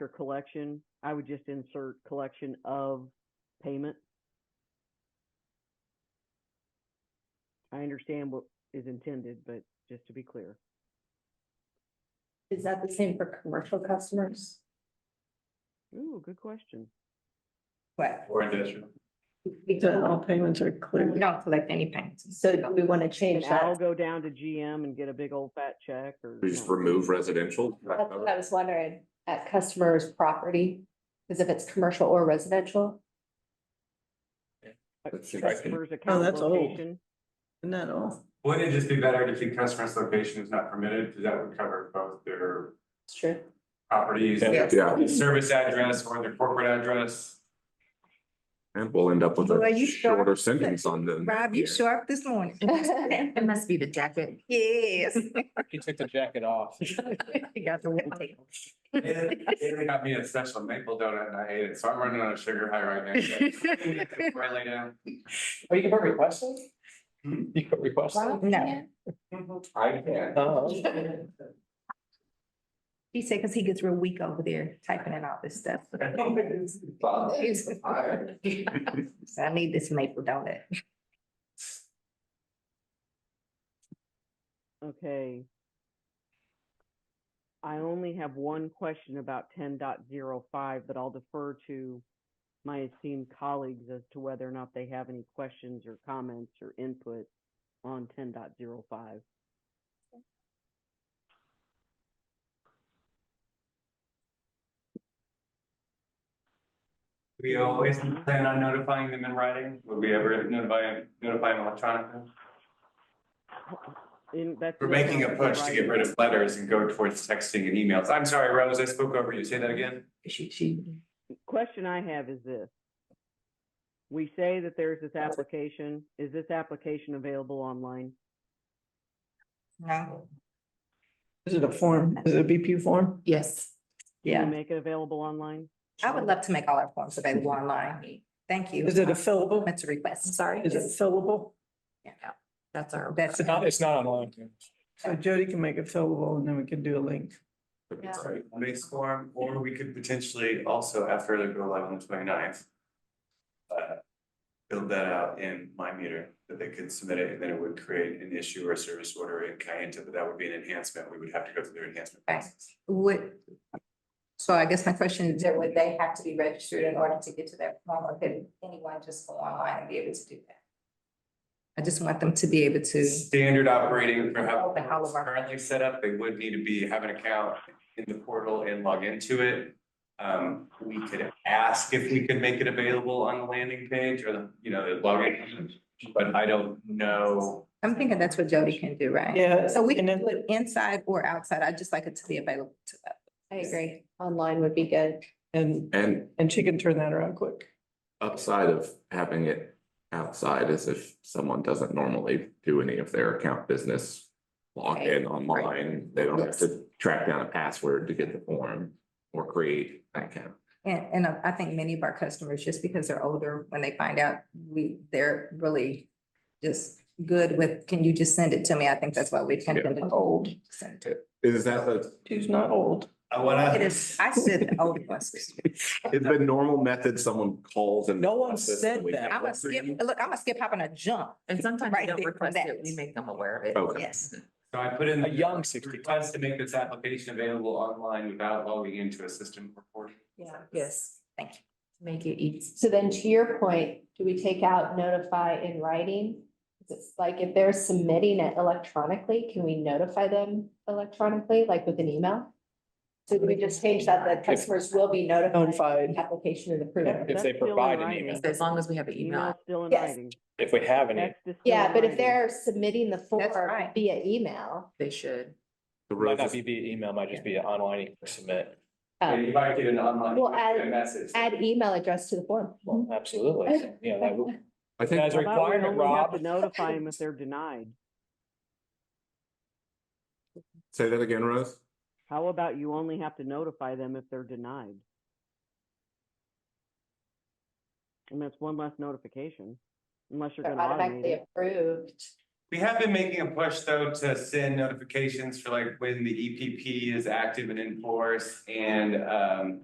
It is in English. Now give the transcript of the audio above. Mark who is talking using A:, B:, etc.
A: for collection, I would just insert collection of payment. I understand what is intended, but just to be clear,
B: Is that the same for commercial customers?
A: ooh, good question.
B: What?
C: Or industrial.
B: We
D: That
B: don't,
D: all payments are
B: we
D: clear.
B: don't collect any payments. So do we want to
A: And
B: change
A: I'll
B: that?
A: go down to GM and get a big old fat check or.
C: We just
A: no.
C: remove residential.
B: That's what I was wondering, at customer's property, because if it's commercial or residential,
A: Uh,
C: Let's see if I can-
A: Customer's account
D: Oh, that's old.
A: location,
D: Isn't that all?
E: Wouldn't it just be better to keep customer's location is not permitted, because that would cover both their
B: it's true.
E: properties,
C: Yeah,
E: service address or their corporate address?
C: and we'll end up with
F: Well,
C: a
F: you sure-
C: shorter sentence on them.
F: Rob, you sharp this morning.
B: It
F: must be the jacket. Yes.
G: He took the jacket off.
F: You got the white.
E: And and they got me a special maple donut and I ate it, so I'm running on a sugar high right now. Before I lay down.
G: Oh, you can put requests in? You could request it?
F: No.
E: I can't.
G: Oh,
F: He said, because he gets real weak over there typing in all this stuff. So I need this maple donut.
A: okay. I only have one question about 10.05, but I'll defer to my esteemed colleagues as to whether or not they have any questions or comments or input on 10.05.
E: We always plan on notifying them in writing, would we ever notify, notify them electronically?
A: In- that's
E: We're
A: in the
E: making a
A: council
E: push to get
A: writing.
E: rid of letters and go towards texting and emails. I'm sorry, Rose, I spoke over you. Say that again.
F: She, she.
A: Question I have is this. We say that there's this application. Is this application available online?
F: No.
D: Is it a form? Is it a BP form?
F: Yes.
A: Can
F: Yeah,
A: we make it available online?
F: I would love to make all our forms available online. Thank you.
D: Is it a fillable?
F: That's a request. Sorry.
D: Is it fillable?
F: That's our. That's.
G: it's not, it's not online.
D: So Jody can make it fillable and then we can do a link.
F: Yeah.
E: Sorry, Base form, or we could potentially also after the go live on the 29th, uh, Build that out in my meter, that they could submit it, and then it would create an issue or a service order in Kayenta, but that would be an enhancement. We would have to go through their enhancement
F: Okay.
E: process.
F: Would. So I guess my question is, would they have to be registered in order to get to that form, or could anyone just go online and be able to do that? I just want them to be able to.
E: Standard operating for how
F: Open all of our-
E: currently set up, they would need to be, have an account in the portal and log into it. Um, we could ask if we could make it available on the landing page or the, you know, the login, but I don't know.
F: I'm thinking that's what Jody can do, right?
D: Yeah.
F: So we can
D: and then-
F: do it inside or outside. I'd just like it to be available to us.
B: I agree. Online would be good.
D: And,
C: And
D: and she can turn that around quick.
C: upside of having it outside is if someone doesn't normally do any of their account business. Log in online, they don't have to track down a password to get the form or create an account.
F: And, and uh, I think many of our customers, just because they're older, when they find out, we, they're really just good with, can you just send it to me? I think that's why we tend to old. Send it to.
C: Is that the,
D: She's not old.
E: I wanna.
F: It is, I said the old ones.
C: is the normal method someone calls and?
D: No one said
C: We-
D: that.
F: I'm gonna skip, look, I'm gonna skip, hop and a jump.
H: And sometimes
F: Right
H: they don't
F: there,
H: request it,
F: that.
H: we make them aware of it.
C: Okay.
F: Yes.
E: So I put in.
G: A young
E: the
G: 60.
E: Request to make this application available online without logging into a system or portal.
F: Yeah. Yes. Thank you.
H: Make it easy.
B: So then to your point, do we take out notify in writing? 'Cause It's like if they're submitting it electronically, can we notify them electronically, like with an email? So do we just change that, that customers will be notified,
D: Notified.
B: application and approval?
G: If they
A: That's still in
G: provide an
A: writing.
G: email,
H: As long as we have an email.
A: Email still in
B: Yes.
A: writing.
G: if we have any,
A: Text is still
B: Yeah,
A: in
B: but if
A: writing.
B: they're submitting the form
F: right.
B: via email,
H: They should.
C: The
G: might
C: Rose's
G: not be via email, might just be an online you can submit.
B: um,
E: If I get an online.
B: Well, add-
E: Message.
B: add email address to the form.
G: Absolutely. You know, that would,
C: I think
G: Guys,
A: I thought we
G: requirement,
A: only have
G: Rob.
A: To notify them if they're denied.
C: Say that again, Rose?
A: How about you only have to notify them if they're denied? And that's one less notification, unless you're
B: They're
A: gonna automate
B: automatically
A: it.
B: approved.
E: We have been making a push though to send E notifications for like when the EPP is active and in force and um.